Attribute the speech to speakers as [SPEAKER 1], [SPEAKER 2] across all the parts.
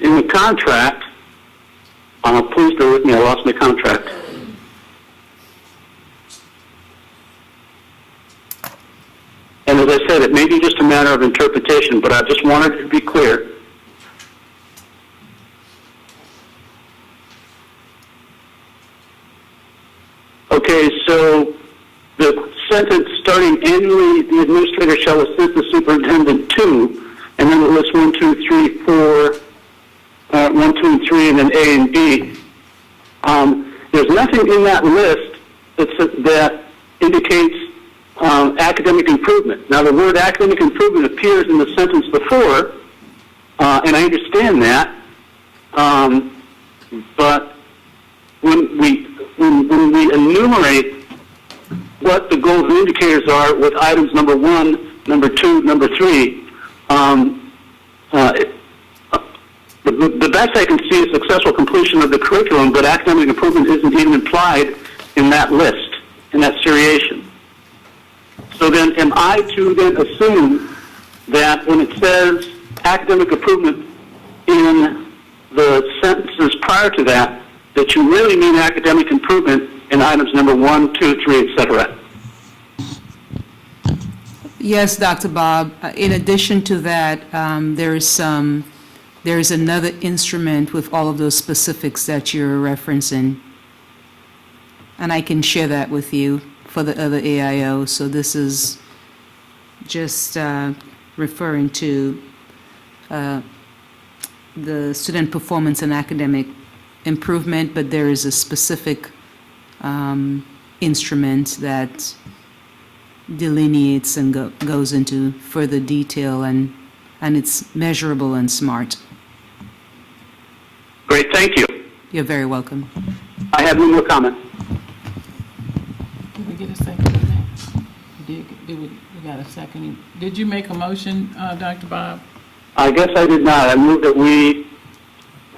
[SPEAKER 1] in the contract, uh, please bear with me, I lost my contract. And as I said, it may be just a matter of interpretation, but I just wanted to be clear. Okay, so the sentence starting annually, the administrator shall assist the superintendent to, and then it lists one, two, three, four, uh, one, two, and three, and then A and B. Um, there's nothing in that list that, s- that indicates um, academic improvement. Now, the word academic improvement appears in the sentence before, uh, and I understand that, um, but when we when, when we enumerate what the goals and indicators are with items number one, number two, number three, um, uh, it- the, the best I can see is successful completion of the curriculum, but academic improvement isn't even implied in that list, in that seriation. So then, am I to then assume that when it says academic improvement in the sentences prior to that, that you really mean academic improvement in items number one, two, three, et cetera?
[SPEAKER 2] Yes, Dr. Bob. Uh, In addition to that, um, there is some, there is another instrument with all of those specifics that you're referencing. And I can share that with you for the other AIO. So this is just uh, referring to uh, the student performance and academic improvement, but there is a specific um, instrument that delineates and go- goes into further detail and, and it's measurable and smart.
[SPEAKER 1] Great, thank you.
[SPEAKER 2] You're very welcome.
[SPEAKER 1] I have no more comment.
[SPEAKER 3] Did we get a second on that? We Did, did we, we got a second. Did you make a motion, uh, Dr. Bob?
[SPEAKER 1] I guess I did not. I move that we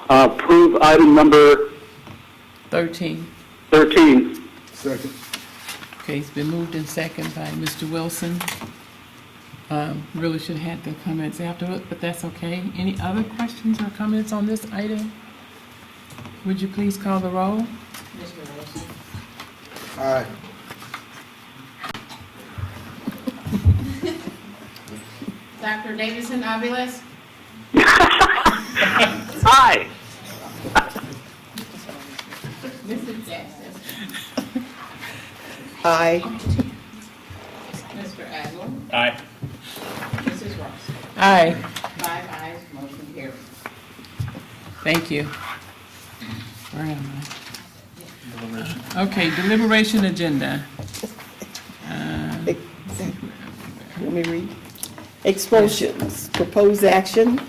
[SPEAKER 1] uh, approve item number
[SPEAKER 3] Thirteen.
[SPEAKER 1] 13.
[SPEAKER 4] Second.
[SPEAKER 3] Okay, it's been moved and second by Mr. Wilson. Um, really should have had the comments afterward, but that's okay. Any other questions or comments on this item? Would you please call the roll?
[SPEAKER 4] Aye.
[SPEAKER 5] Dr. Davidson Aviles,
[SPEAKER 1] Aye.
[SPEAKER 5] Mrs. Jackson,
[SPEAKER 6] Aye.
[SPEAKER 5] Mr. Adler,
[SPEAKER 7] Aye.
[SPEAKER 5] Mrs. Ross.
[SPEAKER 3] Aye.
[SPEAKER 5] Five ayes, motion carries.
[SPEAKER 3] Thank you. Where am I? Okay, deliberation agenda.
[SPEAKER 6] Let me read. Expulsions, proposed action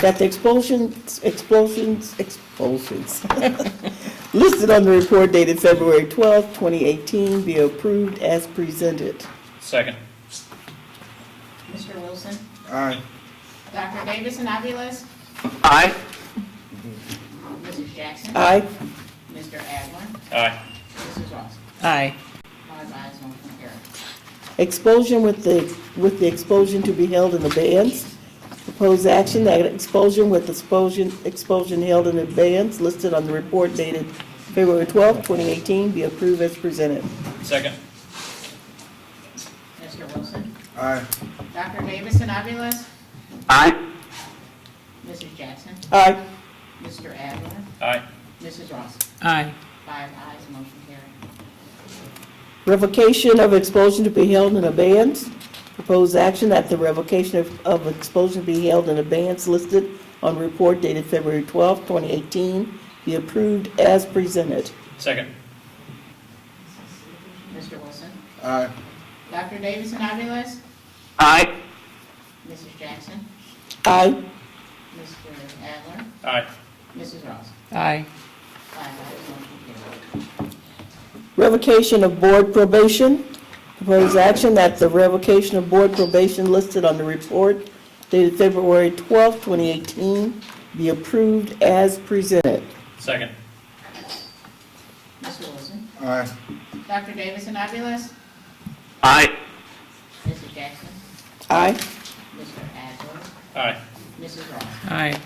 [SPEAKER 6] that the expulsions, expulsions, expulsions listed on the report dated February twelfth, twenty eighteen be approved as presented.
[SPEAKER 7] Second.
[SPEAKER 5] Mr. Wilson.
[SPEAKER 4] Aye.
[SPEAKER 5] Dr. Davidson Aviles,
[SPEAKER 1] Aye.
[SPEAKER 5] Mrs. Jackson,
[SPEAKER 6] Aye.
[SPEAKER 5] Mr. Adler,
[SPEAKER 7] Aye.
[SPEAKER 5] Mrs. Ross.
[SPEAKER 3] Aye.
[SPEAKER 5] Five ayes, motion carries.
[SPEAKER 6] Expulsion with the, with the expulsion to be held in abeyance. Proposed action that expulsion with expulsion, expulsion held in abeyance listed on the report dated February twelfth, twenty eighteen be approved as presented.
[SPEAKER 7] Second.
[SPEAKER 5] Mr. Wilson.
[SPEAKER 4] Aye.
[SPEAKER 5] Dr. Davidson Aviles,
[SPEAKER 1] Aye.
[SPEAKER 5] Mrs. Jackson,
[SPEAKER 6] Aye.
[SPEAKER 5] Mr. Adler,
[SPEAKER 7] Aye.
[SPEAKER 5] Mrs. Ross.
[SPEAKER 3] Aye.
[SPEAKER 5] Five ayes, motion carries.
[SPEAKER 6] Revocation of expulsion to be held in abeyance. Proposed action that the revocation of, of expulsion be held in abeyance listed on report dated February twelfth, twenty eighteen be approved as presented.
[SPEAKER 7] Second.
[SPEAKER 5] Mr. Wilson.
[SPEAKER 4] Aye.
[SPEAKER 5] Dr. Davidson Aviles,
[SPEAKER 1] Aye.
[SPEAKER 5] Mrs. Jackson,
[SPEAKER 6] Aye.
[SPEAKER 5] Mr. Adler,
[SPEAKER 7] Aye.
[SPEAKER 5] Mrs. Ross.
[SPEAKER 3] Aye.
[SPEAKER 5] Five ayes, motion carries.
[SPEAKER 6] Revocation of board probation. Proposed action that the revocation of board probation listed on the report dated February twelfth, twenty eighteen be approved as presented.
[SPEAKER 7] Second.
[SPEAKER 5] Mr. Wilson.
[SPEAKER 4] Aye.
[SPEAKER 5] Dr. Davidson Aviles,
[SPEAKER 1] Aye.
[SPEAKER 5] Mrs. Jackson,
[SPEAKER 6] Aye.
[SPEAKER 5] Mr. Adler,
[SPEAKER 7] Aye.
[SPEAKER 5] Mrs. Ross.
[SPEAKER 3] Aye.